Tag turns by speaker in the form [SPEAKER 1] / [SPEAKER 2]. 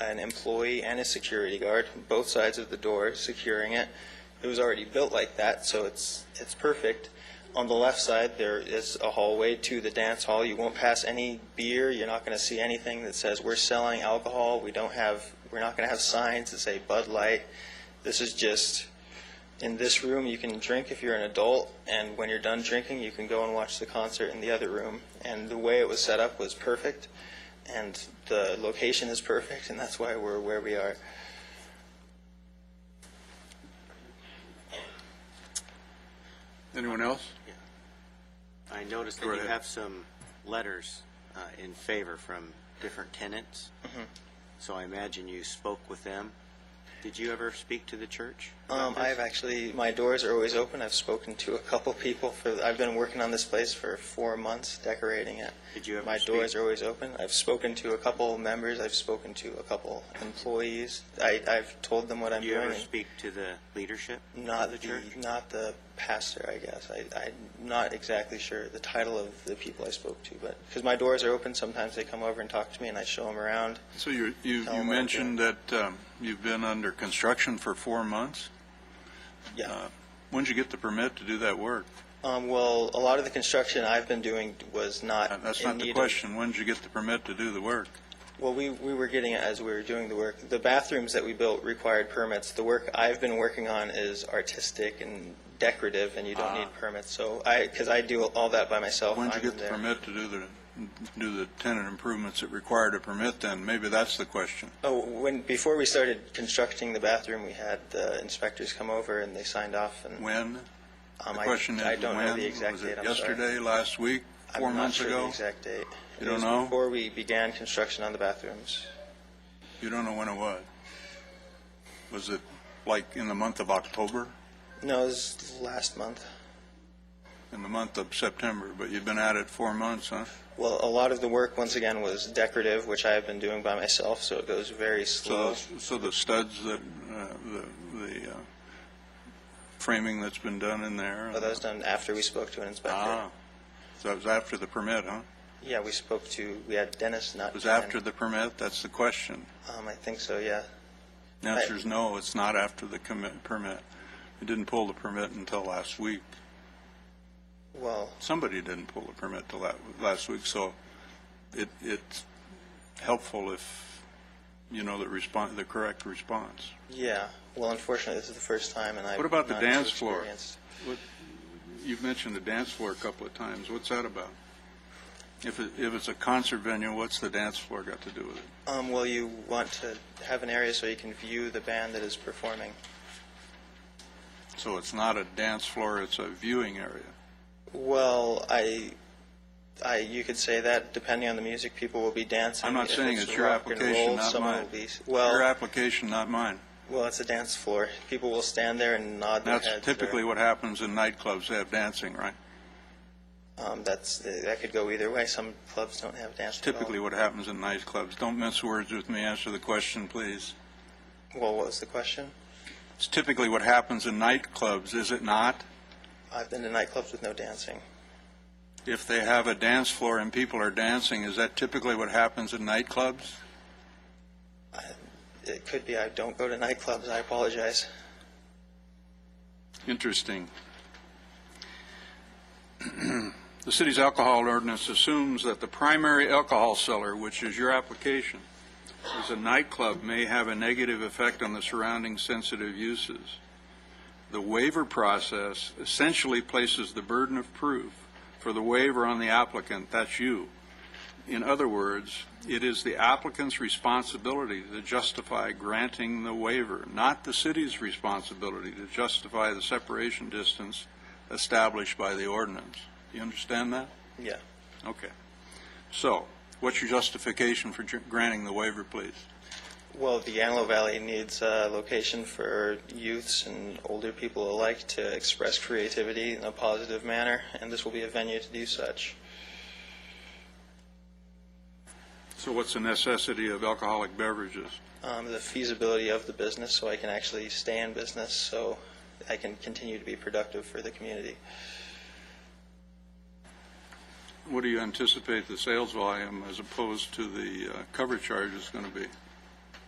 [SPEAKER 1] an employee and a security guard, both sides of the door, securing it. It was already built like that, so it's, it's perfect. On the left side, there is a hallway to the dance hall. You won't pass any beer. You're not going to see anything that says, we're selling alcohol. We don't have, we're not going to have signs that say Bud Light. This is just, in this room, you can drink if you're an adult, and when you're done drinking, you can go and watch the concert in the other room. And the way it was set up was perfect, and the location is perfect, and that's why we're where we are.
[SPEAKER 2] Anyone else?
[SPEAKER 3] I noticed that
[SPEAKER 2] Go
[SPEAKER 3] you
[SPEAKER 2] ahead.
[SPEAKER 3] have some letters uh, in favor from different tenants. So I imagine you spoke with them. Did you ever speak to the church? about
[SPEAKER 1] Um,
[SPEAKER 3] this?
[SPEAKER 1] I've actually, my doors are always open. I've spoken to a couple people for, I've been working on this place for four months, decorating it.
[SPEAKER 3] Did you ever
[SPEAKER 1] My
[SPEAKER 3] speak-
[SPEAKER 1] doors are always open. I've spoken to a couple members. I've spoken to a couple employees. I, I've told them what I'm
[SPEAKER 3] Did you
[SPEAKER 1] doing.
[SPEAKER 3] ever
[SPEAKER 1] and-
[SPEAKER 3] speak to the leadership?
[SPEAKER 1] Not
[SPEAKER 3] of
[SPEAKER 1] the,
[SPEAKER 3] the church?
[SPEAKER 1] not the pastor, I guess. I, I'm not exactly sure the title of the people I spoke to, but, because my doors are open, sometimes they come over and talk to me, and I show them around.
[SPEAKER 2] So you, you,
[SPEAKER 1] Tell
[SPEAKER 2] you
[SPEAKER 1] 'em what I'm
[SPEAKER 2] mentioned that um, you've been under construction for four months.
[SPEAKER 1] Yeah.
[SPEAKER 2] When'd you get the permit to do that work?
[SPEAKER 1] Um, well, a lot of the construction I've been doing was not
[SPEAKER 2] Uh, That's
[SPEAKER 1] in
[SPEAKER 2] not the
[SPEAKER 1] need of.
[SPEAKER 2] question. When'd you get the permit to do the work?
[SPEAKER 1] Well, we, we were getting it as we were doing the work. The bathrooms that we built required permits. The work I've been working on is artistic and decorative, and you don't need permits. So I, because I do all that by myself.
[SPEAKER 2] Ah. When'd you
[SPEAKER 1] I'm
[SPEAKER 2] get the
[SPEAKER 1] there.
[SPEAKER 2] permit to do the, do the tenant improvements that required a permit then? Maybe that's the question.
[SPEAKER 1] Oh, when, before we started constructing the bathroom, we had the inspectors come over and they signed off and.
[SPEAKER 2] When?
[SPEAKER 1] um,
[SPEAKER 2] The
[SPEAKER 1] I-
[SPEAKER 2] question is
[SPEAKER 1] I don't know
[SPEAKER 2] when?
[SPEAKER 1] the exact date, I'm sorry.
[SPEAKER 2] Was it yesterday, last week,
[SPEAKER 1] I'm
[SPEAKER 2] four
[SPEAKER 1] not
[SPEAKER 2] months
[SPEAKER 1] sure the
[SPEAKER 2] ago?
[SPEAKER 1] exact date. It
[SPEAKER 2] You don't
[SPEAKER 1] was
[SPEAKER 2] know?
[SPEAKER 1] Before we began construction on the bathrooms.
[SPEAKER 2] You don't know when it was? Was it like in the month of October,
[SPEAKER 1] No, it was last month.
[SPEAKER 2] in the month of September? But you've been at it four months, huh?
[SPEAKER 1] Well, a lot of the work, once again, was decorative, which I have been doing by myself, so it goes very
[SPEAKER 2] So,
[SPEAKER 1] slow.
[SPEAKER 2] so the studs that, uh, the, the uh, framing that's been done in there?
[SPEAKER 1] But that was done after we spoke to an inspector.
[SPEAKER 2] Ah, so it was after the permit, huh?
[SPEAKER 1] Yeah, we spoke to, we had Dennis, not
[SPEAKER 2] It was
[SPEAKER 1] Dan.
[SPEAKER 2] after the permit? That's the question.
[SPEAKER 1] Um, I think so, yeah.
[SPEAKER 2] The answer is no, it's not after the commit, permit. You didn't pull the permit until last week.
[SPEAKER 1] Well,
[SPEAKER 2] Somebody didn't pull the permit till la- last week, so it, it's helpful if you know the response, the correct response.
[SPEAKER 1] yeah. Well, unfortunately, this is the first time, and I've
[SPEAKER 2] What about the
[SPEAKER 1] not too
[SPEAKER 2] dance floor?
[SPEAKER 1] experienced.
[SPEAKER 2] What, you've mentioned the dance floor a couple of times. What's that about? If it, if it's a concert venue, what's the dance floor got to do with it?
[SPEAKER 1] Um, well, you want to have an area so you can view the band that is performing.
[SPEAKER 2] So it's not a dance floor, it's a viewing area.
[SPEAKER 1] Well, I, I, you could say that depending on the music, people will be dancing.
[SPEAKER 2] I'm not
[SPEAKER 1] If
[SPEAKER 2] saying it's your
[SPEAKER 1] rock and roll,
[SPEAKER 2] application, not
[SPEAKER 1] someone
[SPEAKER 2] mine.
[SPEAKER 1] will be-
[SPEAKER 2] Your
[SPEAKER 1] Well,
[SPEAKER 2] application, not mine.
[SPEAKER 1] well, it's a dance floor. People will stand there and nod their
[SPEAKER 2] That's
[SPEAKER 1] heads. or-
[SPEAKER 2] typically what happens in nightclubs, they have dancing, right?
[SPEAKER 1] Um, that's, that could go either way. Some clubs don't have dance. at all.
[SPEAKER 2] Typically what happens in nightclubs. Don't mince words with me, answer the question, please.
[SPEAKER 1] Well, what was the question?
[SPEAKER 2] It's typically what happens in nightclubs, is it not?
[SPEAKER 1] I've been to nightclubs with no dancing.
[SPEAKER 2] If they have a dance floor and people are dancing, is that typically what happens in nightclubs?
[SPEAKER 1] It could be I don't go to nightclubs. I apologize.
[SPEAKER 2] Interesting. The city's alcohol ordinance assumes that the primary alcohol seller, which is your application, as a nightclub may have a negative effect on the surrounding sensitive uses. The waiver process essentially places the burden of proof for the waiver on the applicant, that's you. In other words, it is the applicant's responsibility to justify granting the waiver, not the city's responsibility to justify the separation distance established by the ordinance. Do you understand that?
[SPEAKER 1] Yeah.
[SPEAKER 2] Okay. So, what's your justification for ju- granting the waiver, please?
[SPEAKER 1] Well, the Antelope Valley needs a location for youths and older people alike to express creativity in a positive manner, and this will be a venue to do such.
[SPEAKER 2] So what's the necessity of alcoholic beverages?
[SPEAKER 1] Um, the feasibility of the business, so I can actually stay in business, so I can continue to be productive for the community.
[SPEAKER 2] What do you anticipate the sales volume as opposed to the uh, cover charge is going to be?